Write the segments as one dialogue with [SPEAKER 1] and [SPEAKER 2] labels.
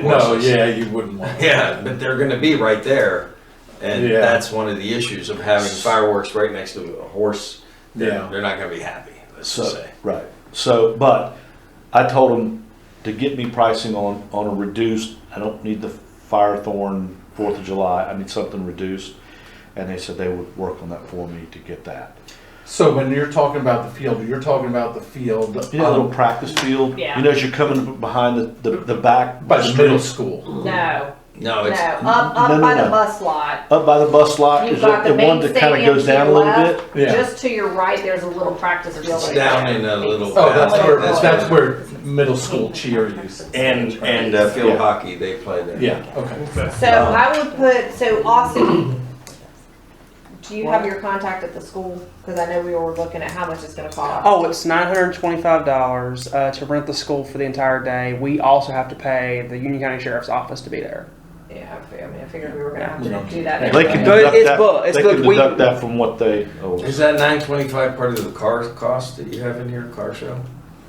[SPEAKER 1] No,
[SPEAKER 2] horses.
[SPEAKER 1] yeah, you wouldn't want. it.
[SPEAKER 2] Yeah, but they're going to be right there, and
[SPEAKER 1] Yeah.
[SPEAKER 2] that's one of the issues of having fireworks right next to a horse. They're,
[SPEAKER 1] Yeah.
[SPEAKER 2] they're not going to be happy. Let's just
[SPEAKER 3] So,
[SPEAKER 2] say.
[SPEAKER 3] right. So, but I told them to get me pricing on, on a reduced, I don't need the Firethorn Fourth of July, I need something reduced. And they said they would work on that for me to get that.
[SPEAKER 1] So when you're talking about the field, you're talking about the field
[SPEAKER 3] You know, a little
[SPEAKER 1] um,
[SPEAKER 3] practice field, you
[SPEAKER 4] Yeah.
[SPEAKER 3] know, as you're coming behind the, the, the back.
[SPEAKER 1] by the middle
[SPEAKER 3] street,
[SPEAKER 1] school.
[SPEAKER 4] No,
[SPEAKER 2] No,
[SPEAKER 4] no,
[SPEAKER 2] it's
[SPEAKER 4] up,
[SPEAKER 3] Oh, no,
[SPEAKER 4] up
[SPEAKER 3] no,
[SPEAKER 4] by
[SPEAKER 3] no.
[SPEAKER 4] the bus lot.
[SPEAKER 3] Up by the bus lot,
[SPEAKER 4] You've
[SPEAKER 3] is
[SPEAKER 4] got
[SPEAKER 3] the
[SPEAKER 4] the
[SPEAKER 3] the one
[SPEAKER 4] main
[SPEAKER 3] that kind of
[SPEAKER 4] stadium
[SPEAKER 3] goes
[SPEAKER 4] to
[SPEAKER 3] down
[SPEAKER 4] your
[SPEAKER 3] a little bit.
[SPEAKER 4] left.
[SPEAKER 1] Yeah.
[SPEAKER 4] Just to your right, there's a little practice field.
[SPEAKER 2] It's
[SPEAKER 4] right
[SPEAKER 2] down
[SPEAKER 4] there.
[SPEAKER 2] in a little
[SPEAKER 4] It's-
[SPEAKER 1] Oh, that's
[SPEAKER 2] Yeah.
[SPEAKER 1] where that's where middle school cheer is.
[SPEAKER 2] and and uh, field
[SPEAKER 3] Yeah.
[SPEAKER 2] hockey they play there.
[SPEAKER 1] Yeah. Okay.
[SPEAKER 4] So I would put, so Austin, do you have your contact at the school? Cause I know we were looking at how much it's gonna cost.
[SPEAKER 5] Oh, it's nine hundred twenty-five dollars uh, to rent the school for the entire day. We also have to pay the Union County Sheriff's Office to be there.
[SPEAKER 4] Yeah, I figured- I mean, I figured we were gonna have
[SPEAKER 1] Yeah.
[SPEAKER 4] to do that.
[SPEAKER 1] They
[SPEAKER 3] They
[SPEAKER 4] anyway.
[SPEAKER 3] can
[SPEAKER 5] But
[SPEAKER 3] deduct
[SPEAKER 5] it's
[SPEAKER 3] that,
[SPEAKER 5] booked. It's
[SPEAKER 3] they can
[SPEAKER 5] booked. We-
[SPEAKER 3] deduct that from what they owe.
[SPEAKER 2] Is that nine twenty five part of the car cost that you have in here, car show?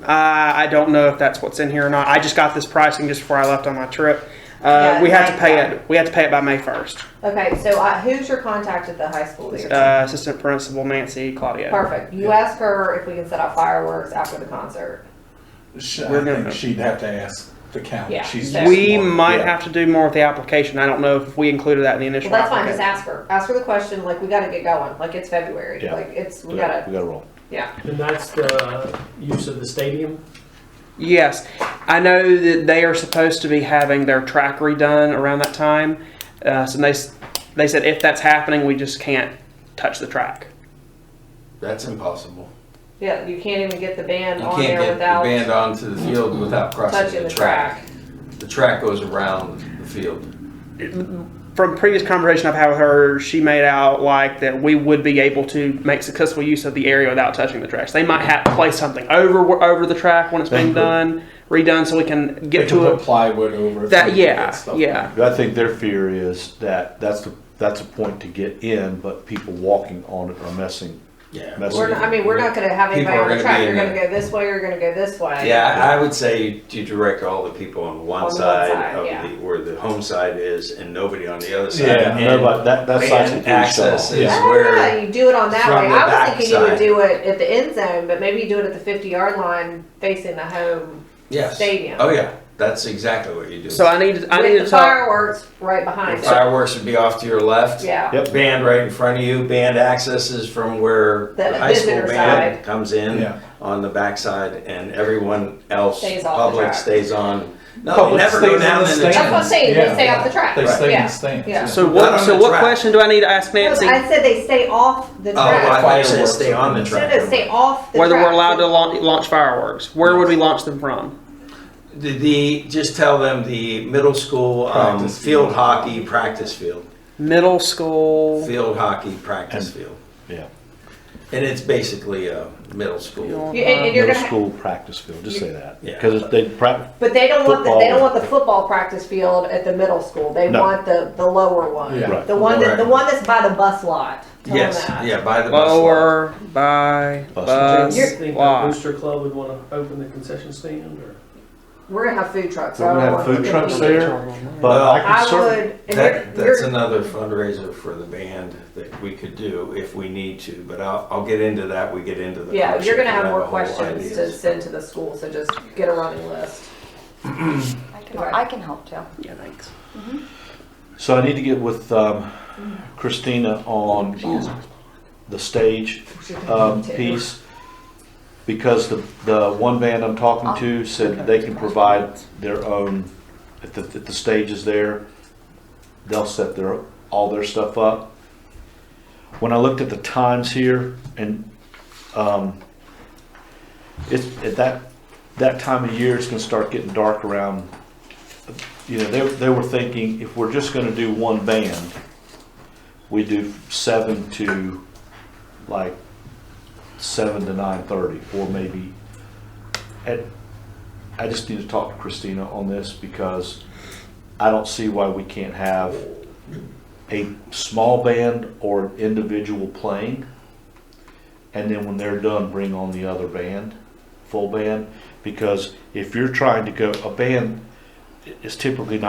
[SPEAKER 5] Uh, I don't know if that's what's in here or not. I just got this pricing just before I left on my trip. Uh,
[SPEAKER 4] Yeah,
[SPEAKER 5] we had to
[SPEAKER 4] May
[SPEAKER 5] pay
[SPEAKER 4] first.
[SPEAKER 5] it. We had to pay it by May first.
[SPEAKER 4] Okay, so uh, who's your contact at the high school that you're?
[SPEAKER 5] Uh, assistant principal Nancy Claudio.
[SPEAKER 4] Perfect. You ask her if we can set up fireworks after the concert.
[SPEAKER 1] Sh-
[SPEAKER 5] We're
[SPEAKER 1] I
[SPEAKER 5] gonna-
[SPEAKER 1] think she'd have to ask the county.
[SPEAKER 4] Yeah.
[SPEAKER 1] She's
[SPEAKER 4] Yes.
[SPEAKER 5] We
[SPEAKER 1] smart.
[SPEAKER 5] might
[SPEAKER 3] yeah.
[SPEAKER 5] have to do more with the application. I don't know if we included that in the
[SPEAKER 4] Well,
[SPEAKER 5] initial.
[SPEAKER 4] that's fine. Just
[SPEAKER 5] application.
[SPEAKER 4] ask her. Ask her the question. Like we got to get going. Like it's February.
[SPEAKER 3] Yeah.
[SPEAKER 4] Like it's we
[SPEAKER 3] We
[SPEAKER 4] gotta.
[SPEAKER 3] gotta roll.
[SPEAKER 4] Yeah.
[SPEAKER 6] And that's the use of the stadium?
[SPEAKER 5] Yes, I know that they are supposed to be having their track redone around that time. Uh, so they s- they said if that's happening, we just can't touch the track.
[SPEAKER 2] That's impossible.
[SPEAKER 4] Yeah. You can't even get the band
[SPEAKER 2] You
[SPEAKER 4] on
[SPEAKER 2] can't
[SPEAKER 4] there
[SPEAKER 2] get the
[SPEAKER 4] without
[SPEAKER 2] band onto the field without crossing
[SPEAKER 4] touching the track.
[SPEAKER 2] The track goes around the field.
[SPEAKER 5] From previous conversation I've had with her, she made out like that we would be able to make successful use of the area without touching the tracks. They might have to place something over over the track when it's being done, redone, so we can
[SPEAKER 1] They
[SPEAKER 5] get
[SPEAKER 1] can
[SPEAKER 5] to
[SPEAKER 1] put
[SPEAKER 5] it.
[SPEAKER 1] plywood over it. so
[SPEAKER 5] That
[SPEAKER 1] you can get
[SPEAKER 5] yeah
[SPEAKER 1] stuff.
[SPEAKER 5] yeah.
[SPEAKER 3] I think their fear is that that's the, that's a point to get in, but people walking on it are messing,
[SPEAKER 2] Yeah.
[SPEAKER 3] messing.
[SPEAKER 4] We're not, I mean, we're not gonna have
[SPEAKER 2] People
[SPEAKER 4] anybody
[SPEAKER 2] are
[SPEAKER 4] on the
[SPEAKER 2] gonna
[SPEAKER 4] track.
[SPEAKER 2] be
[SPEAKER 4] You're
[SPEAKER 2] in
[SPEAKER 4] gonna
[SPEAKER 2] there.
[SPEAKER 4] go this way. You're gonna go this way.
[SPEAKER 2] Yeah, I I would say you- you direct all the people on
[SPEAKER 4] On
[SPEAKER 2] one
[SPEAKER 4] the one
[SPEAKER 2] side
[SPEAKER 4] side,
[SPEAKER 2] of
[SPEAKER 4] yeah.
[SPEAKER 2] the, where the home side is and nobody on the other side.
[SPEAKER 1] Yeah,
[SPEAKER 3] Yeah,
[SPEAKER 2] And
[SPEAKER 3] nobody, that, that's like.
[SPEAKER 2] band access is
[SPEAKER 4] I
[SPEAKER 1] Yeah.
[SPEAKER 4] don't know.
[SPEAKER 2] where,
[SPEAKER 4] Ah, You do it on that
[SPEAKER 2] From
[SPEAKER 4] way.
[SPEAKER 2] the
[SPEAKER 4] I was thinking you would
[SPEAKER 2] backside.
[SPEAKER 4] do it at the end zone, but maybe you do it at the 50 yard line facing the home
[SPEAKER 2] yes.
[SPEAKER 4] stadium.
[SPEAKER 2] Oh, yeah, that's exactly what you do.
[SPEAKER 5] So I need to, I need
[SPEAKER 4] with
[SPEAKER 5] to
[SPEAKER 4] the
[SPEAKER 5] talk.
[SPEAKER 4] fireworks right behind
[SPEAKER 2] Your
[SPEAKER 4] it.
[SPEAKER 2] Fireworks would be off to your left.
[SPEAKER 4] Yeah.
[SPEAKER 3] Yep.
[SPEAKER 2] Band right in front of you, band accesses from where
[SPEAKER 4] The
[SPEAKER 2] the high school
[SPEAKER 4] visitor
[SPEAKER 2] band comes
[SPEAKER 1] Yeah.
[SPEAKER 2] in on the backside and everyone else,
[SPEAKER 4] Stays off the
[SPEAKER 2] public
[SPEAKER 4] track.
[SPEAKER 2] stays on. No, they
[SPEAKER 1] Public
[SPEAKER 2] never go
[SPEAKER 1] stays in
[SPEAKER 2] down
[SPEAKER 1] the
[SPEAKER 2] in the
[SPEAKER 1] stands.
[SPEAKER 4] That's what I'm
[SPEAKER 2] stands.
[SPEAKER 4] saying.
[SPEAKER 1] Yeah.
[SPEAKER 4] They stay off the track.
[SPEAKER 1] They stay in
[SPEAKER 4] Yeah.
[SPEAKER 1] the stands.
[SPEAKER 4] Yeah.
[SPEAKER 5] So
[SPEAKER 2] Not
[SPEAKER 5] what
[SPEAKER 2] on
[SPEAKER 5] so
[SPEAKER 2] the
[SPEAKER 5] what
[SPEAKER 2] track.
[SPEAKER 5] question do I need to ask Nancy?
[SPEAKER 4] I said they stay off the
[SPEAKER 2] Oh, I
[SPEAKER 4] track.
[SPEAKER 2] thought you said
[SPEAKER 1] Fireworks.
[SPEAKER 2] stay on the
[SPEAKER 1] No,
[SPEAKER 4] No,
[SPEAKER 2] track.
[SPEAKER 4] no, stay off the
[SPEAKER 5] whether
[SPEAKER 4] track.
[SPEAKER 5] we're allowed to launch, launch fireworks. Where would we launch them from?
[SPEAKER 2] The, the just tell them the middle school um,
[SPEAKER 1] Practice
[SPEAKER 2] field
[SPEAKER 1] field.
[SPEAKER 2] hockey practice field,
[SPEAKER 5] Middle school.
[SPEAKER 2] field hockey practice field,
[SPEAKER 3] Yeah,
[SPEAKER 2] and it's basically a middle school.
[SPEAKER 5] Field.
[SPEAKER 4] You- and,
[SPEAKER 5] Uh,
[SPEAKER 4] and you're
[SPEAKER 3] middle
[SPEAKER 4] gonna.
[SPEAKER 3] school practice field, just say that.
[SPEAKER 2] Yeah.
[SPEAKER 3] Because they practice,
[SPEAKER 4] but they don't want the, they
[SPEAKER 3] football.
[SPEAKER 4] don't want the football practice field at the middle school. They
[SPEAKER 3] No.
[SPEAKER 4] want the, the lower one.
[SPEAKER 1] Yeah.
[SPEAKER 3] Right.
[SPEAKER 4] The one that the
[SPEAKER 2] Right.
[SPEAKER 4] one that's by the bus lot. Tell
[SPEAKER 2] Yes,
[SPEAKER 4] them that.
[SPEAKER 2] yeah, by the bus lot.
[SPEAKER 5] Lower by
[SPEAKER 3] Bus
[SPEAKER 5] bus
[SPEAKER 6] Do you think the
[SPEAKER 5] lot.
[SPEAKER 6] Booster Club would want to open the concession stand or?
[SPEAKER 4] We're gonna have food trucks.
[SPEAKER 3] We're gonna
[SPEAKER 4] I don't
[SPEAKER 3] have
[SPEAKER 4] want
[SPEAKER 3] food
[SPEAKER 4] to
[SPEAKER 3] trucks
[SPEAKER 4] be-
[SPEAKER 3] there, but
[SPEAKER 2] Well,
[SPEAKER 3] I
[SPEAKER 4] I
[SPEAKER 3] can certainly,
[SPEAKER 4] would. And
[SPEAKER 2] That,
[SPEAKER 4] you're,
[SPEAKER 2] that's
[SPEAKER 4] you're,
[SPEAKER 2] another fundraiser for the band that we could do if we need to, but I'll, I'll get into that, we get into the.
[SPEAKER 4] yeah,
[SPEAKER 2] concert,
[SPEAKER 4] you're gonna have
[SPEAKER 2] I
[SPEAKER 4] more
[SPEAKER 2] a whole
[SPEAKER 4] questions to
[SPEAKER 2] ideas.
[SPEAKER 4] send to the school, so just get a running list.
[SPEAKER 7] I can, I can help too.
[SPEAKER 5] Yeah, thanks.
[SPEAKER 3] so I need to get with um, Christina on the stage um, piece because the, the one band I'm talking to said they can provide their own, if the, if the stage is there, they'll set their, all their stuff up. When I looked at the times here and, um, it's, at that, that time of year, it's gonna start getting dark around, you know, they, they were thinking if we're just gonna do one band, we do seven to like seven to nine thirty, or maybe at, I just need to talk to Christina on this because I don't see why we can't have a small band or an individual playing. And then when they're done, bring on the other band, full band, because if you're trying to go, a band, is typically